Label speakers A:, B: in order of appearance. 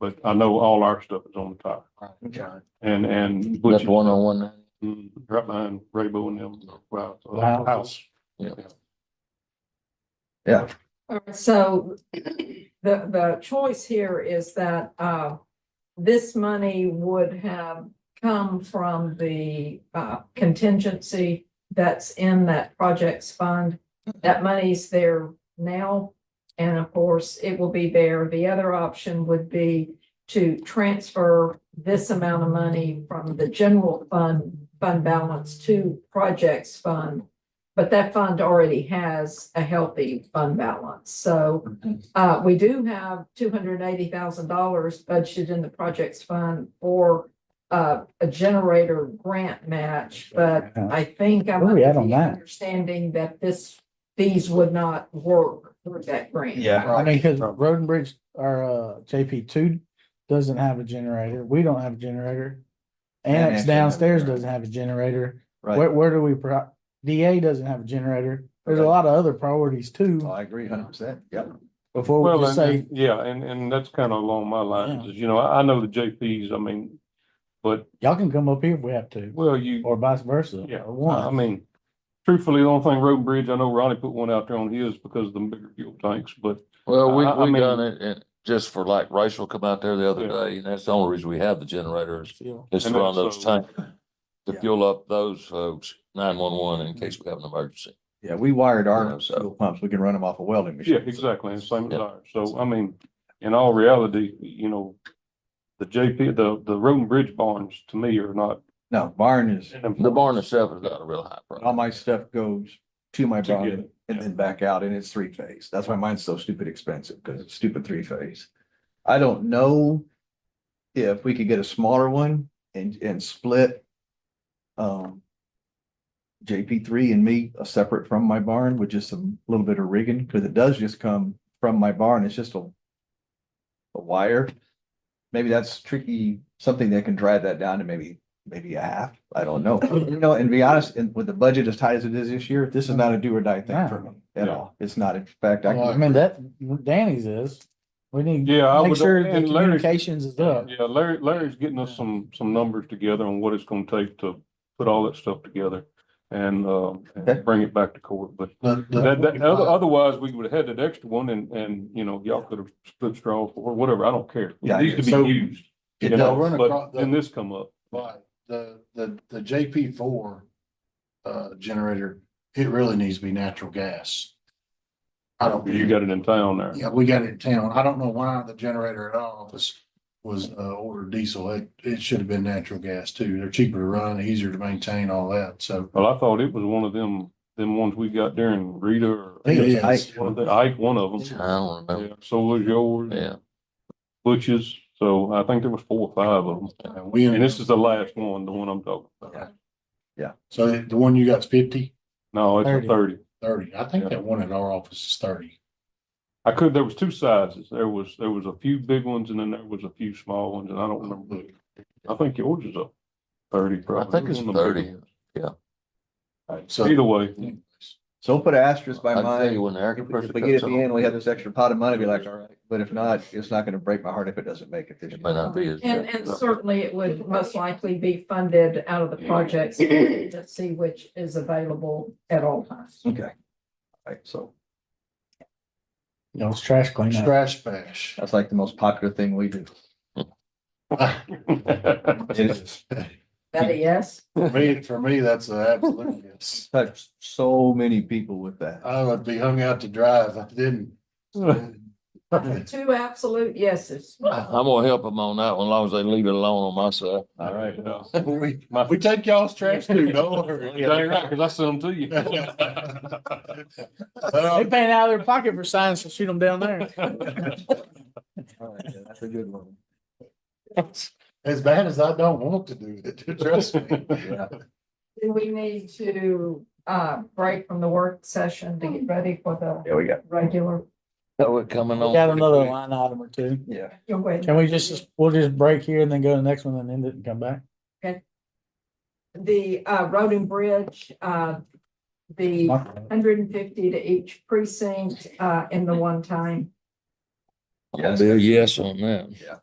A: but I know all our stuff is on the top. And, and.
B: That's
A: Butcher-
B: one on one.
A: Mm, Right behind Raybo and them, wow,
B: The house.
A: house.
C: All right, So the, the choice here is that, uh, this money would have come from the, uh, contingency that's in that projects fund. That money's there now, and of course, it will be there. The other option would be to transfer this amount of money from the general fund, fund balance to projects fund. But that fund already has a healthy fund balance, so uh we do have two hundred and eighty thousand dollars budgeted in the projects fund for. Uh, a generator grant match, but I think I'm
D: Where we at on that?
C: understanding that this, these would not work through that grant.
D: Yeah, I mean, because Road and Bridge, our uh JP two doesn't have a generator. We don't have a generator. Annex
E: Annex doesn't have a
D: downstairs
E: generator.
D: doesn't have a generator. Where,
E: Right,
D: where do we, pro- DA doesn't have a generator. There's a
E: Right.
D: lot of other priorities too,
E: I agree hundred percent, yep.
D: before we
A: Well,
D: just
A: and-
D: say,
A: and- yeah, and, and that's kind of along my lines, is, you know, I, I know the JPs, I mean, but,
D: y'all can come up here if we have to,
A: well, you,
D: or vice versa.
A: Yeah,
D: or
A: I I
E: Uh-huh.
D: One,
A: mean, truthfully, the only thing road and bridge, I know Ronnie put one out there on his because of the bigger fuel tanks, but
B: Well, we,
A: I- I
B: we
A: mean-
B: done it, and just for like Rachel come out there the other
A: Yeah.
B: day, and that's the only reason we have the generators,
D: Yeah.
B: is to
A: And
B: run those
A: also-
B: tanks. To fuel up those folks, nine one one in case we have an emergency.
E: Yeah, we wired
B: Yeah,
E: our
B: so-
E: fuel pumps, we can run them off a welding machine.
A: yeah, exactly, and same as
B: Yeah.
A: ours. So, I mean, in all reality, you know, the JP, the, the road and bridge barns to me are not.
E: No, barn is,
B: The barn itself is not a real high
E: all
B: price.
E: my stuff goes to my
A: Together.
E: barn and then back out and it's three phase. That's why mine's so stupid expensive because it's stupid three phase. I don't know if we could get a smaller one and, and split um JP three and me uh, separate from my barn with just some little bit of rigging, because it does just come from my barn. It's just a a wire. Maybe that's tricky, something that can drive that down to maybe, maybe a half. I don't know. You know, and to be honest, and with the budget as tight as it is this year, this is not a do or die thing for me at all. It's not. In fact, I
D: I
E: can,
D: mean, that, Danny's is, we need,
A: Yeah, I
D: make
A: would,
D: sure the
A: and Larry's
D: communications is up.
A: Yeah, Larry, Larry's getting us some, some numbers together on what it's gonna take to put all that stuff together and, uh,
E: Okay.
A: bring it back to court, but that, that, other- otherwise, we would have had that extra one and, and, you know, y'all could have split straw for whatever, I don't care.
E: Yeah,
A: It needs to
F: so-
A: be used,
E: It
A: you
E: does.
A: know,
F: Run
A: but
F: across the-
A: then this come up.
F: Right, the, the, the JP four, uh, generator, it really needs to be natural gas. I don't.
A: You got it in town there.
F: Yeah, we got it in town. I don't know why the generator at our office was, uh, ordered diesel. It, it should have been natural gas too. They're cheaper to run, easier to maintain, all that, so.
A: Well, I thought it was one of them, them ones we got during Rita or
F: It is.
E: Ike.
A: one of the, Ike, one of
B: I
A: them.
B: don't remember,
A: Yeah, So was yours.
B: yeah.
A: Butch's, so I think there was four or five of them.
F: And we,
A: And this is the last one, the one I'm talking
F: Yeah.
A: about.
F: so the one you got's fifty,
A: No, it's a
D: Thirty.
A: thirty.
F: thirty. I think that one at our office is thirty.
A: I could, there was two sizes. There was, there was a few big ones and then there was a few small ones and I don't remember. the- I think yours is a thirty
B: I
A: probably.
B: think it's
A: One of the bigger
B: thirty.
A: ones.
F: So-
A: Either way,
E: so we'll put an asterisk
B: I
E: by
B: tell
E: mine.
B: you when the air
E: If
B: compressor
E: we get
B: cuts
E: it at the
B: on,
E: end, we have this extra pot of money, be like, all right, but if not, it's not gonna break my heart if it doesn't make it this
B: it may
E: year.
B: not be as.
C: And, and certainly it would most likely be funded out of the projects see which is available at all times.
E: Okay. All right, so
D: You know, it's trash cleanup.
F: Trash bash.
E: that's like the most popular thing we do.
C: That a yes?
F: For me, for me, that's an absolute yes.
E: Touch so many people with that.
F: I would be hung out to dry if I didn't.
C: Two absolute yeses.
B: I'm gonna help them on that one, as long as they leave it alone on my side.
E: All right.
A: Yeah.
F: We,
A: My-
F: we take y'all's trash too, don't worry.
A: Dang right, cause I sent them to you.
D: They
F: Uh,
D: paying out of their pocket for signs to shoot them down there.
E: All right, yeah, That's a good one.
F: As bad as I don't want to do it, trust me.
E: Yeah.
C: Do we need to, uh, break from the work session to get ready for the
E: Yeah, we got,
C: regular?
B: That would coming on.
D: Got another
B: pretty
D: line item or two.
E: yeah.
C: you're waiting.
D: Can we just, we'll just break here and then go to the next one and end it and come back?
C: The, uh, road and bridge, uh, the hundred and fifty to each precinct, uh, in the one time.
B: quick. I'll be a yes on that.
E: Yeah.